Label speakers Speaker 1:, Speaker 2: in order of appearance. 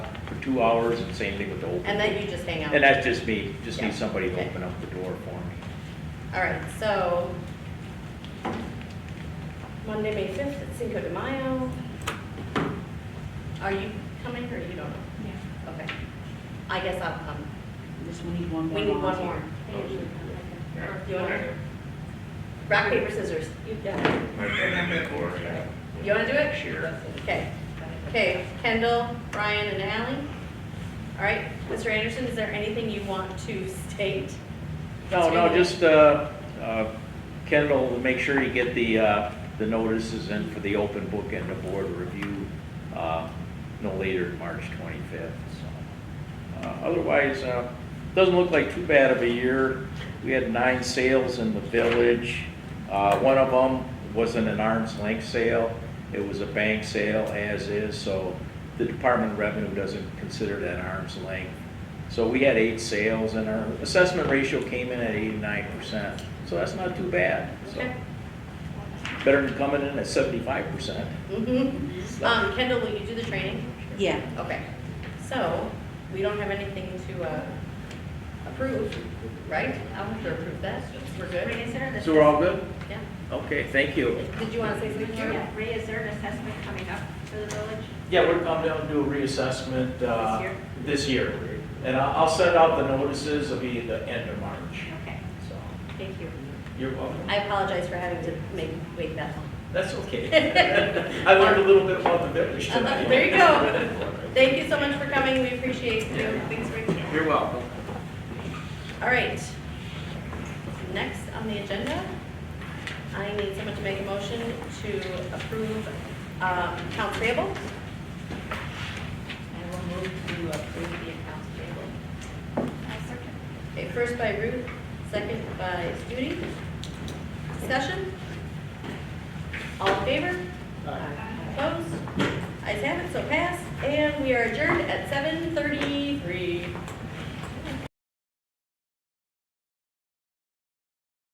Speaker 1: for two hours, and same thing with the open.
Speaker 2: And then you just hang out.
Speaker 1: And that's just me, just
Speaker 2: Yeah.
Speaker 1: need somebody to
Speaker 2: Okay.
Speaker 1: open up the door for me.
Speaker 2: All right, so Monday, May 5th, at Cinco de Mayo. Are you coming or you don't know?
Speaker 3: Yeah,
Speaker 2: Okay. I guess I'll come.
Speaker 3: just we need one more.
Speaker 2: We need one more.
Speaker 3: volunteer.
Speaker 2: You want to? Rock, paper, scissors. You got it. You want to do it?
Speaker 4: Sure.
Speaker 2: Okay. Okay, Kendall, Brian, and Ally. All right, Mr. Anderson, is there anything you want to state?
Speaker 1: No, no, just, uh, uh, Kendall, make sure you get the, uh, the notices in for the open book and the board review, uh, no later than March twenty-fifth, so. Uh, Otherwise, uh, doesn't look like too bad of a year. We had nine sales in the village. Uh, one of them wasn't an arm's length sale. It was a bank sale as is, so the Department of Revenue doesn't consider that arm's length. So we had eight sales and our assessment ratio came in at eighty-nine percent. So that's not too bad. So
Speaker 2: Okay.
Speaker 1: better than coming in at seventy-five percent.
Speaker 2: Mhm. Um, Kendall, will you do the training?
Speaker 3: Yeah,
Speaker 2: Okay, so we don't have anything to uh, approve, right? I'll have to approve that. We're good?
Speaker 5: Reassert
Speaker 1: So we're all good?
Speaker 2: Yeah.
Speaker 1: Okay, thank you.
Speaker 2: Did you want to say something? Jerry?
Speaker 5: Reassert assessment coming up for the village.
Speaker 1: Yeah, we're coming down to do a reassessment, uh,
Speaker 5: This year?
Speaker 1: this year. And I'll, I'll send out the notices, it'll be the end of March,
Speaker 5: Okay.
Speaker 1: so.
Speaker 2: Thank you.
Speaker 1: You're welcome.
Speaker 2: I apologize for having to make, wait that long.
Speaker 1: That's okay. I learned a little bit about the village tonight.
Speaker 2: There you go. Thank you so much for coming. We appreciate you. Thanks for being here.
Speaker 1: You're welcome.
Speaker 2: All right. Next on the agenda, I need someone to make a motion to approve um, accounts payable. I will move to approve the accounts payable. Okay, first by Ruth, second by Judy. Discussion? All in favor? Opposed? Ayes have it, so pass. And we are adjourned at 7:38.